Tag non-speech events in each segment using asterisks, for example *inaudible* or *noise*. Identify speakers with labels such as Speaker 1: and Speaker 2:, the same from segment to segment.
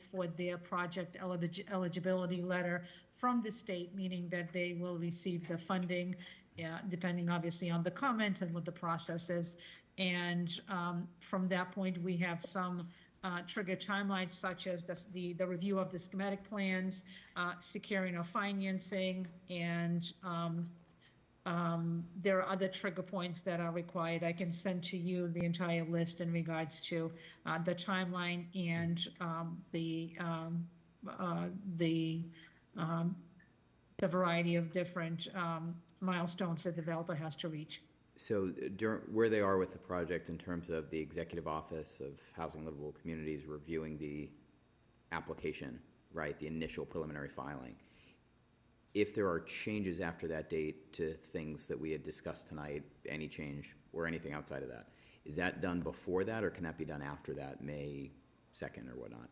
Speaker 1: for their project elig- eligibility letter from the state, meaning that they will receive the funding, yeah, depending obviously on the comment and what the process is. And um, from that point, we have some uh, trigger timelines such as the, the, the review of the schematic plans, uh, securing of financing, and um, um, there are other trigger points that are required. I can send to you the entire list in regards to uh, the timeline and um, the, um, uh, the, um, the variety of different um, milestones the developer has to reach.
Speaker 2: So during, where they are with the project in terms of the Executive Office of Housing and Livable Communities reviewing the application, right, the initial preliminary filing. If there are changes after that date to things that we had discussed tonight, any change or anything outside of that, is that done before that or can that be done after that, May second or whatnot?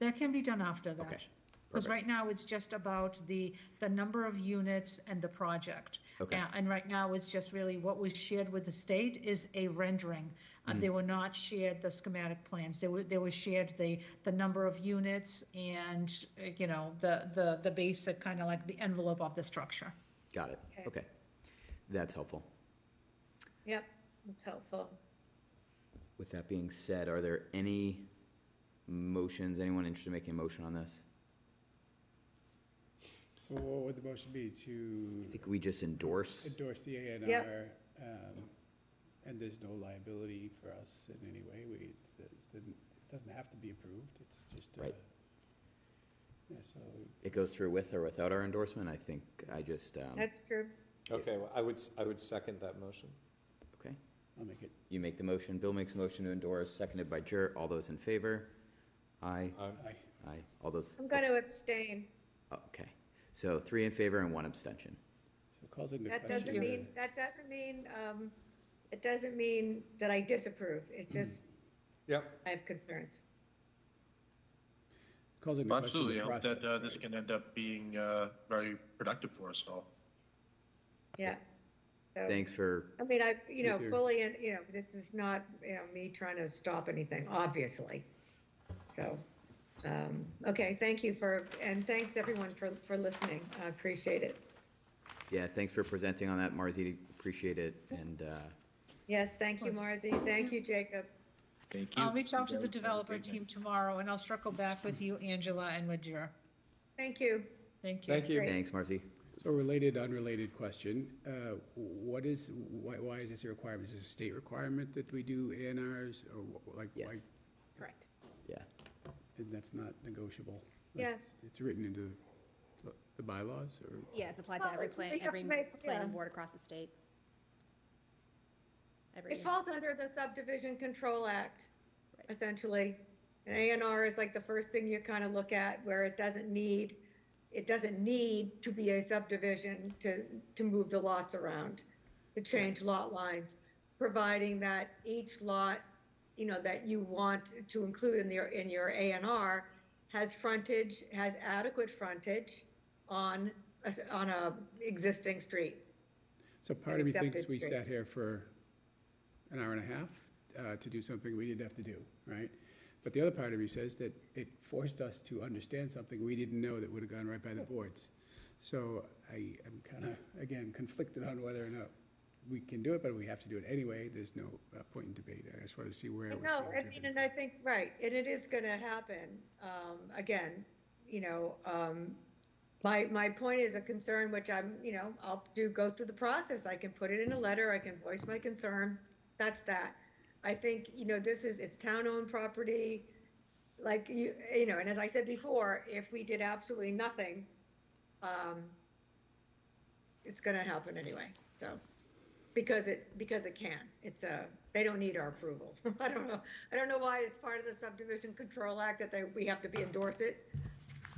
Speaker 1: That can be done after that.
Speaker 2: Okay,
Speaker 1: Because
Speaker 2: perfect.
Speaker 1: right now, it's just about the, the number of units and the project.
Speaker 2: Okay.
Speaker 1: A- And right now, it's just really what was shared with the state is a rendering. Uh, They were not shared the schematic plans. They were, they were shared the, the number of units and, uh, you know, the, the, the basic, kind of like the envelope of the structure.
Speaker 2: Got it,
Speaker 3: Okay.
Speaker 2: okay. That's helpful.
Speaker 3: Yep, it's helpful.
Speaker 2: With that being said, are there any motions, anyone interested in making a motion on this?
Speaker 4: So what would the motion be to
Speaker 2: I think we just endorse.
Speaker 4: endorse the A and
Speaker 3: Yep.
Speaker 4: R? um, And there's no liability for us in any way. We, it's- it's didn't- it doesn't have to be approved, it's just. uh,
Speaker 2: Right.
Speaker 4: Yeah, so,
Speaker 2: It goes through with or without our endorsement, I think I just, um,
Speaker 3: That's true.
Speaker 5: Okay, well, I would, s- I would second that motion.
Speaker 2: okay.
Speaker 4: I'll make it,
Speaker 2: You make the motion, Bill makes a motion to endorse, seconded by Jer, all those in favor? Aye,
Speaker 5: Um,
Speaker 4: aye.
Speaker 2: aye, all those,
Speaker 3: I'm going to abstain.
Speaker 2: okay. So three in favor and one abstention.
Speaker 4: So calls into
Speaker 3: That
Speaker 4: question.
Speaker 3: doesn't
Speaker 4: the-
Speaker 3: mean, that doesn't mean, um, it doesn't mean that I disapprove. It's just
Speaker 5: Yep,
Speaker 3: I have concerns.
Speaker 4: Calls into question
Speaker 6: Absolutely,
Speaker 4: the
Speaker 6: I hope
Speaker 4: process.
Speaker 6: that uh, this
Speaker 4: right?
Speaker 6: can end up being uh, very productive for us all.
Speaker 3: Yeah. So,
Speaker 2: Thanks for,
Speaker 3: I mean, I, you know,
Speaker 4: Thank you.
Speaker 3: fully, and, you know, this is not, you know, me trying to stop anything, obviously. So, um, okay, thank you for, and thanks everyone for, for listening. I appreciate it.
Speaker 2: yeah, thanks for presenting on that, Marzi, appreciate it, and, uh,
Speaker 3: Yes, thank you,
Speaker 1: Of course.
Speaker 3: Marzi. Thank you, Jacob.
Speaker 6: Thank
Speaker 1: I'll reach out to the developer team tomorrow, and I'll circle back with you, Angela, and with Jer.
Speaker 3: Thank you.
Speaker 1: Thank you.
Speaker 5: thank you.
Speaker 3: Great.
Speaker 2: thanks, Marzi.
Speaker 4: So related, unrelated question, uh, what is, why, why is this a requirement? Is this a state requirement that we do A and Rs or wh- like? why-
Speaker 2: Yes.
Speaker 3: Correct.
Speaker 2: Yeah,
Speaker 4: And that's not negotiable?
Speaker 3: Yes.
Speaker 4: That's- It's written into the- the bylaws or?
Speaker 7: Yeah, it's applied
Speaker 3: Well,
Speaker 7: to every
Speaker 3: it-
Speaker 7: plan,
Speaker 3: we have
Speaker 7: every
Speaker 3: to make-
Speaker 7: planning
Speaker 3: yeah.
Speaker 7: board across the state. Every,
Speaker 3: It falls under the subdivision control act,
Speaker 7: Right.
Speaker 3: essentially. An A and R is like the first thing you kind of look at where it doesn't need, it doesn't need to be a subdivision to, to move the lots around, to change lot lines, providing that each lot, you know, that you want to include in your, in your A and R has frontage, has adequate frontage on, a s- on a existing street.
Speaker 4: So part of me thinks
Speaker 3: accepted
Speaker 4: we
Speaker 3: straight.
Speaker 4: sat here for an hour and a half uh, to do something we didn't have to do, right? But the other part of me says that it forced us to understand something we didn't know that would have gone right by the boards. So I am kind of, again, conflicted on whether or not we can do it, but we have to do it anyway. There's no uh, point in debate. I just wanted to see where it was.
Speaker 3: No,
Speaker 4: being
Speaker 3: I mean,
Speaker 4: driven.
Speaker 3: and I think, right, and it is gonna happen, um, again, you know, um, my, my point is a concern, which I'm, you know, I'll do, go through the process, I can put it in a letter, I can voice my concern, that's that. I think, you know, this is, it's town-owned property, like, you, you know, and as I said before, if we did absolutely nothing, um, it's gonna happen anyway, so. Because it, because it can. It's a, they don't need our approval. *laughs* I don't know, I don't know why it's part of the subdivision control act that they, we have to be endorse it.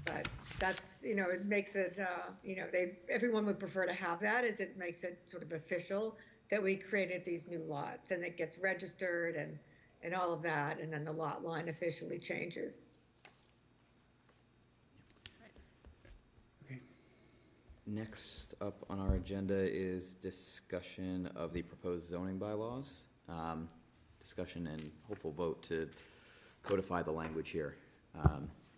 Speaker 3: But that's, you know, it makes it, uh, you know, they, everyone would prefer to have that as it makes it sort of official that we created these new lots and it gets registered and, and all of that. And then the lot line officially changes.
Speaker 4: Okay.
Speaker 2: Next up on our agenda is discussion of the proposed zoning bylaws. Um, Discussion and hopeful vote to codify the language here. Um,